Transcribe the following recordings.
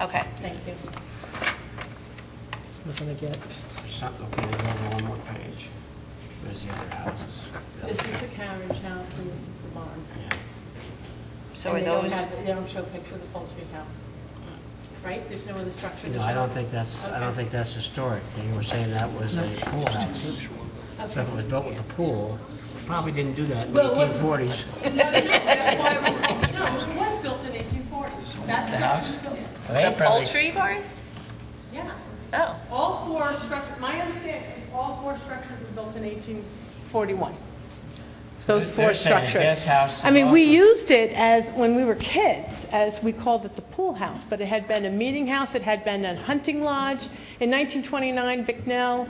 Okay. Thank you. It's not gonna get, Something, okay, there's only one more page. Where's the other houses? This is the carriage house and this is the barn. Yeah. So And are they don't those, have- They don't show a picture of the poultry house, right? There's no other structure to No, I show? don't think that's, I don't Okay. think that's historic. They were saying that was a pool house. So if it was built with a pool, probably didn't do that in the Well, it wasn't- 1840s. No, no, no, that's why I was- no, it was built in 1840. That structure was built, They the probably- poultry barn? yeah. Oh, All four structures, my understanding, is all four structures were built in 1841. Those They're four saying the structures. guest house is I mean, we awesome. used it as, when we were kids, as we called it the pool house, but it had been a meeting house, it had been a hunting lodge. In 1929, Vicknell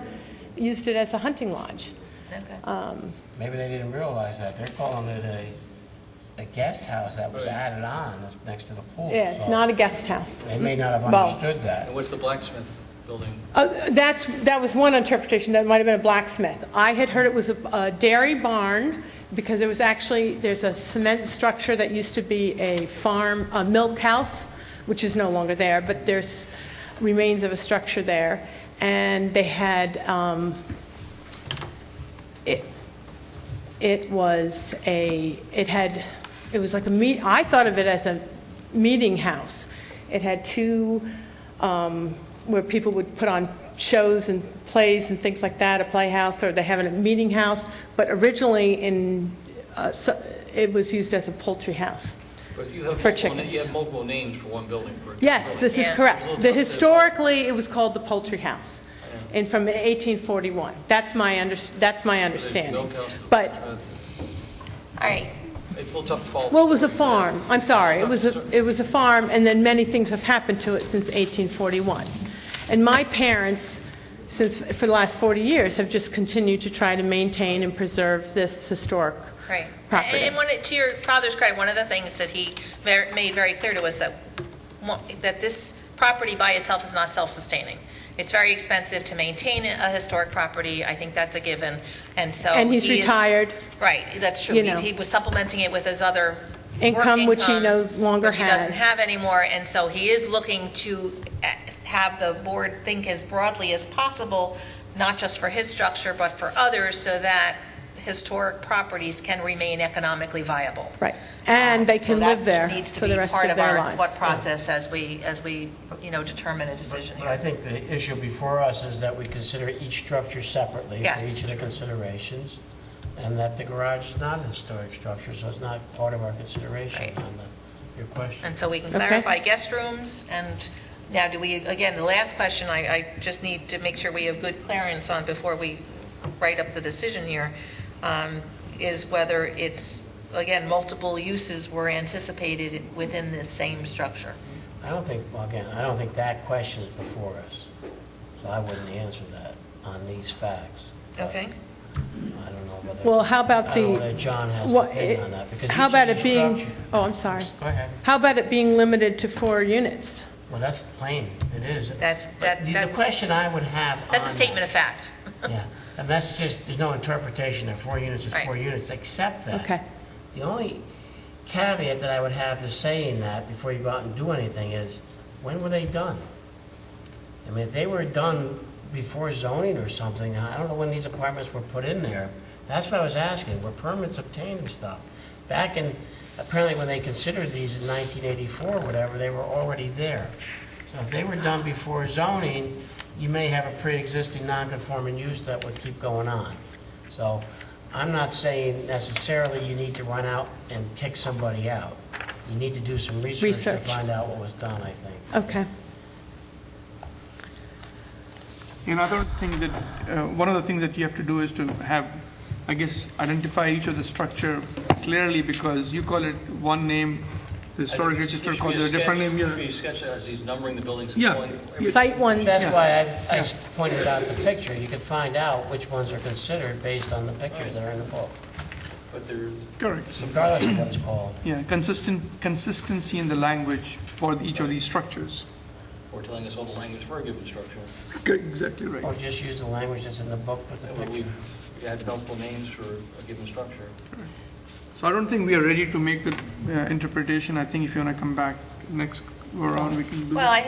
used it as a hunting lodge. okay. Uh, Maybe they didn't realize that. They're calling it a, a guest house that was added on that's next to the pool. Yeah, it's So not a guest house. They may not have Well- understood that. And what's the blacksmith building? Uh, That's, that was one interpretation, that it might have been a blacksmith. I had heard it was a- a dairy barn, because it was actually, there's a cement structure that used to be a farm, a milk house, which is no longer there, but there's remains of a structure there. And they had, um, it, it was a, it had, it was like a meet, I thought of it as a meeting house. It had two, um, where people would put on shows and plays and things like that, a playhouse, or they have a meeting house. But originally in, uh, so- it was used as a poultry house. But you have For multiple na- You chickens. have multiple names for one building. for a Yes, building. this is Yeah. correct. The Historically, it was called the poultry house, Yeah. and from 1841. That's my under, that's my There's understanding. milk house, the But blacksmith. All right. It's a little tough to follow. Well, it was a farm, I'm sorry, it was, a it was a farm, and then many things have happened to it since 1841. And my parents, since, for the last 40 years, have just continued to try to maintain and preserve this historic Right. property. And one, to your father's credit, one of the things that he ver- made very clear to us that, mo- that this property by itself is not self-sustaining. It's very expensive to maintain a historic property. I think that's a given. And so. And he's he is- retired. Right, that's true. You He know. he was supplementing it with his other. work Income, which he no income, longer Which he doesn't has. have anymore. And so he is looking to eh, have the board think as broadly as possible, not just for his structure, but for others, so that historic properties can remain economically viable. Um, Right, and they can live there So that needs to for be the rest part of their our thought lives. process as we, as we, you know, determine a decision But I here. think the issue before us is that we consider each structure separately Yes. for each of the considerations, and that the garage is not a historic structure, so it's not part of our consideration Right. on the, your question. And so we can Okay. clarify guest rooms, and now do we, again, the last question, I, I just need to make sure we have good clearance on before we write up the decision here, um, is whether it's, again, multiple uses were anticipated within the same structure. I don't think, well, again, I don't think that question is before us, so I wouldn't answer that on these facts. Okay? I don't know whether. Well, how about I don't know the- whether John has an What- opinion on that, because How each about of it these being, structures- oh, I'm sorry. Go ahead. How about it being limited to four units? Well, that's plain, it is. That's- But that- the- The that's- question I would have on. That's a statement of fact. Yeah, and that's just, there's no interpretation that four units is four Right. units, except that. Okay. The only caveat that I would have to saying that before you go out and do anything is, when were they done? I mean, if they were done before zoning or something, I don't know when these apartments were put in there. That's what I was asking, were permits obtained and stuff? Back in, apparently when they considered these in 1984, or whatever, they were already there. So if they were done before zoning, you may have a pre-existing non-conforming use that would keep going on. So I'm not saying necessarily you need to run out and kick somebody out. You need to do some research to Research. find out what was done, I think. Okay. Another thing that, uh, one of the things that you have to do is to have, I guess, identify each of the structure clearly because you call it one name, the historic register There should be calls it a different sketch- name. There should be you're- a sketch that has these numbering the buildings. and Yeah. calling- Site one, That's why I, I pointed out the picture. You can find out which ones are considered based on the pictures that are in the book, But there's, Correct. regardless of what it's called. Yeah, consistent, consistency in the language for each of these structures. or telling us all the language for a given structure. Okay, Exactly right. Or just use the language that's in the book with the That way picture. We've had multiple names for a given structure. So I don't think we are ready to make the uh, interpretation. I think if you want to come back next go around, we can do that. Well, I